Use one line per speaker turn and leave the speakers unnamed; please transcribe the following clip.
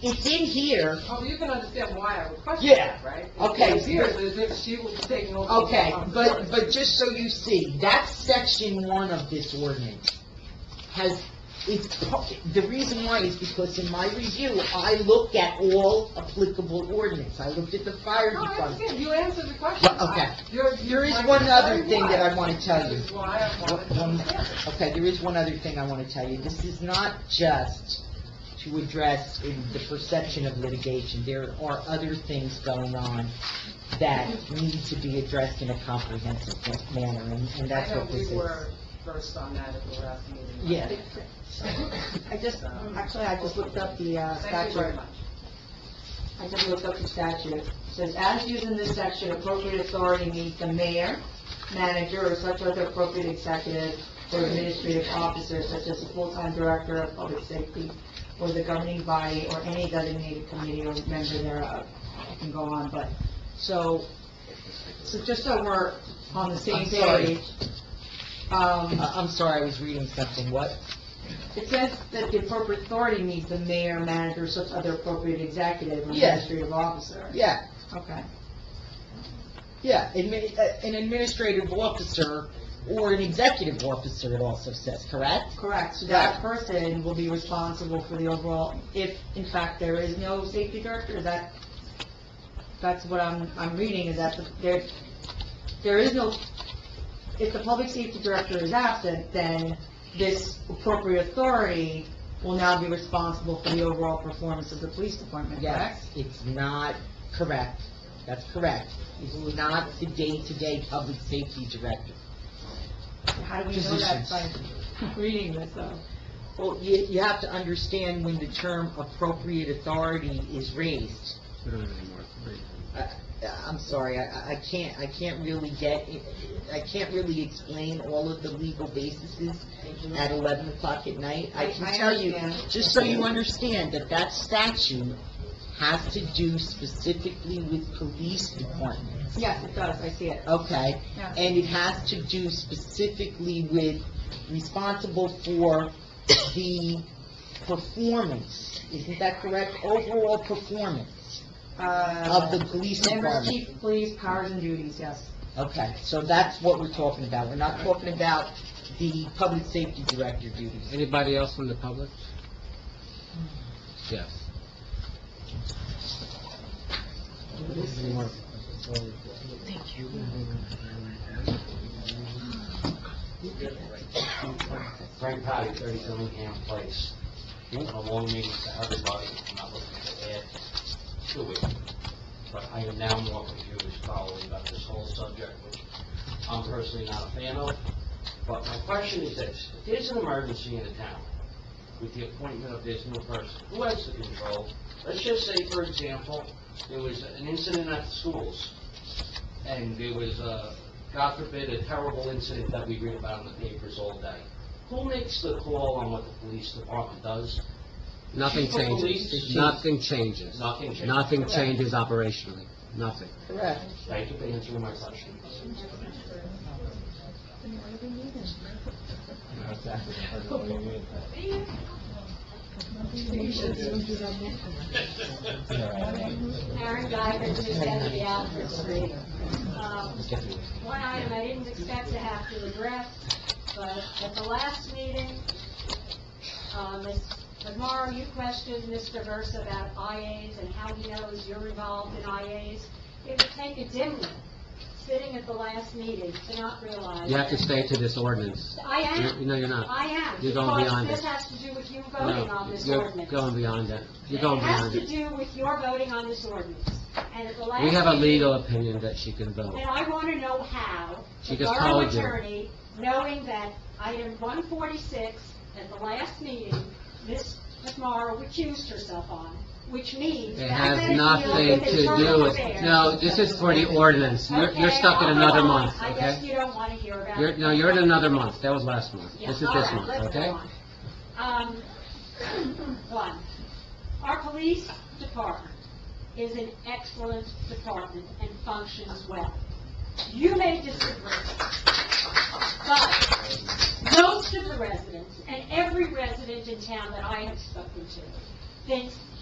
It's in here,
Oh, you can understand why I would question
Yeah.
that, right?
Okay.
It appears as if she was taking over.
okay, but, but just so you see, that's section one of this ordinance. Has, it's, pu- the reason why is because in my review, I look at all applicable ordinance. I looked at the fire
No, I
department.
understand, you answered the question.
Well, okay.
I- you're-
There is
you're-
one other thing that I wanna tell you.
This is why I wanted to
One-
understand it.
Okay, there is one other thing I want to tell you. This is not just to address in the perception of litigation. There are other things going on that need to be addressed in a comprehensive ma- manner, and and that's what this is.
I know we were first on that at the last meeting.
Yeah.
I just, actually, I just looked up the uh,
Thank you very
statute.
much.
I just looked up the statute. It Says, as used in this section, appropriate authority means the mayor, manager, or such other appropriate executive or administrative officer, such as the full-time director of public safety, or the governing body, or any designated committee or member thereof. I can go on, but, so, so just so we're on the same
I'm sorry.
page. Um,
I- Uh, I'm sorry, I was reading something. What?
It says that the appropriate authority means the mayor, manager, such other appropriate executive or
Yes.
administrative officer.
Yeah,
Okay.
yeah, admi- uh, an administrative officer or an executive officer, it also says, correct?
Correct, so that person will be responsible for the overall, if in fact there is no safety director, that, that's what I'm, I'm reading, is that the- there, there is no, if the public safety director is absent, then this appropriate authority will now be responsible for the overall performance of the police department, correct?
Yes, it's not correct. That's correct. It's not the day-to-day public safety director.
How do we know that by reading this, though?
Well, you, you have to understand when the term appropriate authority is raised.
We don't have any more three.
I- I'm sorry, I- I, I can't, I can't really get, I can't really explain all of the legal bases at 11 o'clock at night. I
I-
can
I
tell you,
understand.
just so you understand, that that statute has to do specifically with police departments,
Yes, it does, I see it.
okay?
Yeah.
and it has to do specifically with responsible for the performance, isn't that correct? Overall performance of the police
Members,
department.
chief Uh, of police, powers and duties, yes.
Okay, so that's what we're talking about, we're not talking about the public safety director duties.
Anybody else from the public? Yes.
Frank Potty, 30 Dillingham Place. One of the long meetings to everybody, I'm not looking to add to it, but I am now more confused probably about this whole subject, which I'm personally not a fan of. But my question is this, if there's an emergency in the town with the appointment of this new person, who has the control? Let's just say, for example, there was an incident at the schools, and there was, uh, God forbid, a terrible incident that we read about in the papers all day. Who makes the call on what the police department does?
Nothing
Chief of
changes.
police?
Nothing changes.
Nothing changes.
Nothing changes operationally. Nothing.
Correct.
Thank you for answering my question.
Karen Geiger, two seventy Alfred Street. Um, One item I didn't expect to have to address, but at the last meeting, uh, Ms. McMorro, you questioned Mr. Verse about IAs and how he knows you're involved in IAs. It would take a dimwit, sitting at the last meeting, to not realize.
You have to stay to this ordinance.
I
You-
am,
No, you're not.
I am.
You're going beyond
Because
it.
this has to do with you voting on
No,
this
you're
ordinance.
going beyond that. You're going beyond
It has
it.
to do with your voting on this ordinance. And at the last...
We have a
meeting-
legal opinion that she can vote.
And I want to know how
She
the
just
borough
told you.
attorney, knowing that item 146 at the last meeting, Ms. McMorro recused herself on, which means...
It
that had
has
deal
nothing
with
to do
internal
with,
affairs.
no, this is for the ordinance. You're, you're
Okay,
stuck in
I'll go
another
on.
month,
I guess
okay?
you don't want to hear about it.
You're, no, you're in another month. That was last month.
Yeah,
This is
all
this
right, let's
month,
go
okay?
on. Um, one, our police department is an excellent department and functions well. You may disagree, but most of the residents, and every resident in town that I have spoken to, thinks